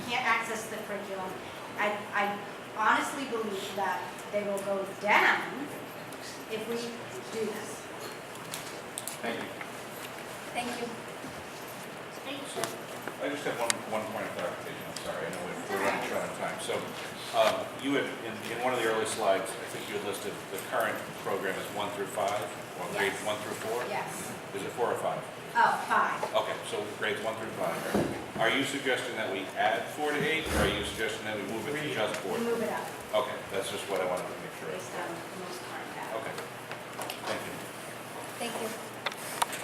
that they will go down if we do this. Thank you. Thank you. So, I just have one, one point of clarification, I'm sorry, I know we're- we're running short on time. So, um, you had, in, in one of the early slides, I think you had listed the current program is one through five, or grades Yes. one through four? Yes. Is it four or five? Oh, five. Okay, so grades one through five. Are you suggesting that we add four to eight, or are you suggesting that we move it to just four? Move it up Okay, that's just what I wanted to make sure of. based on the most current data. Okay, thank you. Thank you.